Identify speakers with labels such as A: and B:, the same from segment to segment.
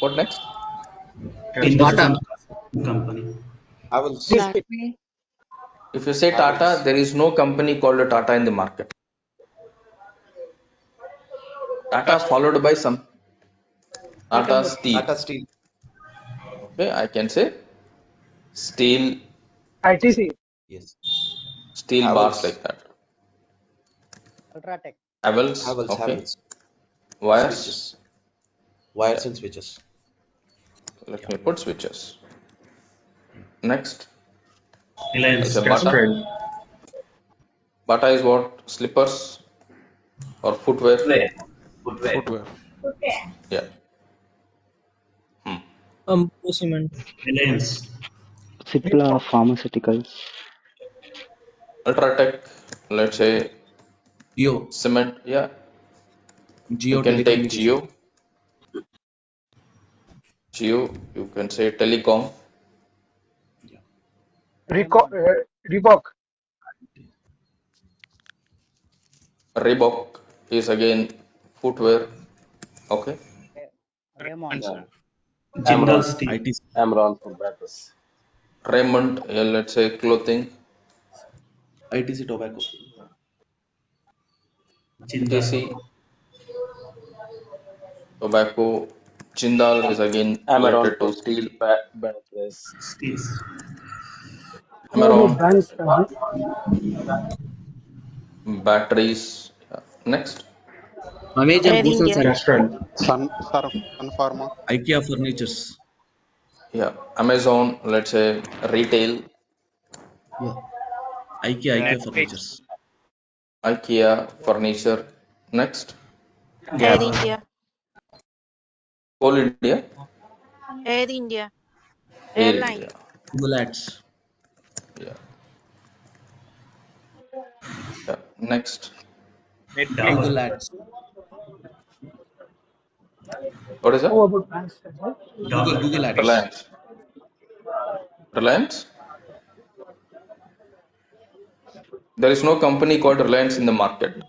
A: What next?
B: In
C: Tata.
B: Company.
A: I will see. If you say Tata, there is no company called a Tata in the market. Tata followed by some Tata Steel.
C: Tata Steel.
A: Okay, I can say steel,
D: ITC,
C: Yes.
A: steel
C: Havells.
A: bars like that.
D: Ultratech.
A: Havells.
C: Havels,
A: okay.
C: Havels.
A: Wires.
C: Switches. Wires and switches.
A: Let me put switches. Next,
B: Reliance.
A: It's a Bata. Bata is what? Slippers or footwear?
B: Footwear.
A: Yeah. Hmm.
B: Reliance.
E: Cipla Pharmaceuticals.
A: Ultratech, let's say
C: Geo.
A: cement. Yeah.
C: Geo.
A: You can take Geo.
C: telecommunication.
A: Geo, you can say telecom.
D: Reco- uh, Reebok,
A: Reebok is again footwear. Okay.
D: Raymond.
B: Jindal Steel.
F: Amron for Brothers.
A: Raymond, yeah, let's say clothing.
C: ITC tobacco.
B: Jindal.
A: TC. Tobacco. Jindal is again
F: Amaron
A: related
F: for
A: to
F: Steel
A: steel.
F: Ba- Brothers.
B: Steels.
A: Amaron, batteries. Yeah. Next,
G: Air India.
H: Sun, Sun, Sun Pharma.
C: IKEA furnitures.
A: yeah. Amazon, let's say retail.
C: IKEA, IKEA furnitures.
A: IKEA, furniture. Next,
G: Air India.
A: Coal India.
G: Air India.
A: Air
G: Airline.
A: India.
C: Bullets.
A: Yeah. Yeah. Next,
B: Tower.
A: what is that?
B: Tower.
C: Google Ads.
A: Reliance. Reliance? There is no company called Reliance in the market.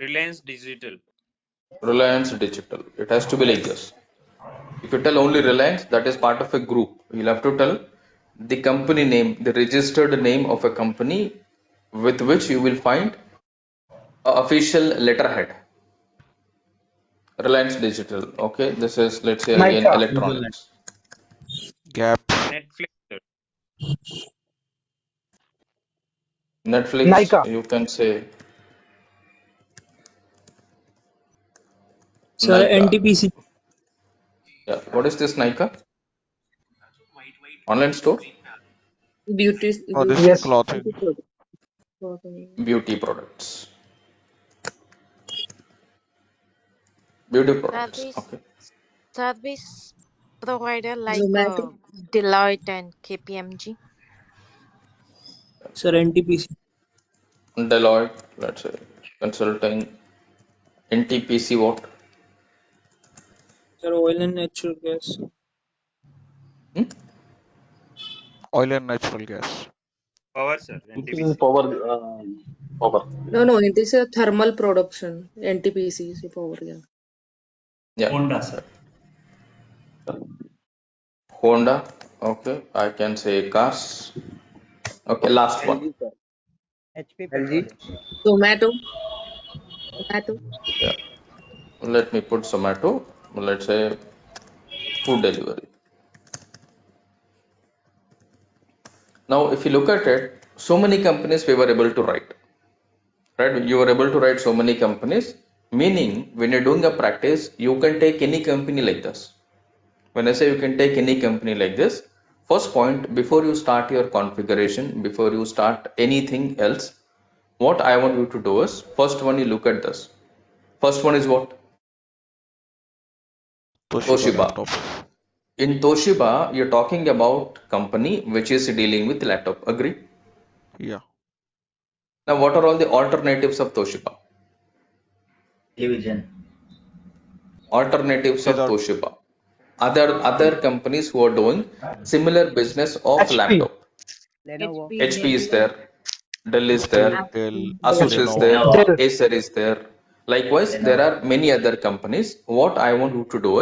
I: Reliance Digital.
A: Reliance Digital. It has to be like this. If you tell only Reliance, that is part of a group. You'll have to tell the company name, the registered name of a company with which you will find a official letterhead. Reliance Digital. Okay, this is let's say again
D: Mica.
A: electronics.
H: Gap.
I: Netflix. sir.
A: Netflix,
D: Nykaa.
A: you can say.
J: Sir,
A: Nykaa.
J: NTPC.
A: Yeah. What is this Nykaa? Online store?
G: Beauty.
H: Oh, this
D: Yes.
H: is clothing.
A: Beauty products. Beauty products.
G: Service.
A: Okay.
G: Service provider like uh, Deloitte and KPMG.
J: Sir, NTPC.
A: Deloitte, let's say. Consulting. NTPC what?
J: Sir, oil and natural gas.
A: Hmm?
H: Oil and natural gas.
I: Power, sir.
F: This is power. Uh, power.
K: No, no, it is a thermal production, NTPC, so power, yeah.
A: Yeah.
B: Honda, sir.
A: Honda. Okay. I can say cars. Okay. Last one.
D: HP.
K: Zomato, Zomato,
A: Yeah. Let me put Zomato. Let's say food delivery. Now, if you look at it, so many companies we were able to write. Right? You were able to write so many companies, meaning when you're doing a practice, you can take any company like this. When I say you can take any company like this, first point before you start your configuration, before you start anything else, what I want you to do is first one you look at this. First one is what? Toshiba.
H: laptop.
A: In Toshiba, you're talking about company which is dealing with laptop. Agree?
H: Yeah.
A: Now, what are all the alternatives of Toshiba?
C: Division.
A: Alternatives of
H: These are-
A: Toshiba. Other other companies who are doing similar business of
D: HP.
A: laptop.
D: Lenovo.
A: HP is there, Dell is there,
H: Dell,
A: Asus is
H: Lenovo.
A: there,
D: Dell.
A: Acer is there. Likewise, there are many other companies. What I want you to do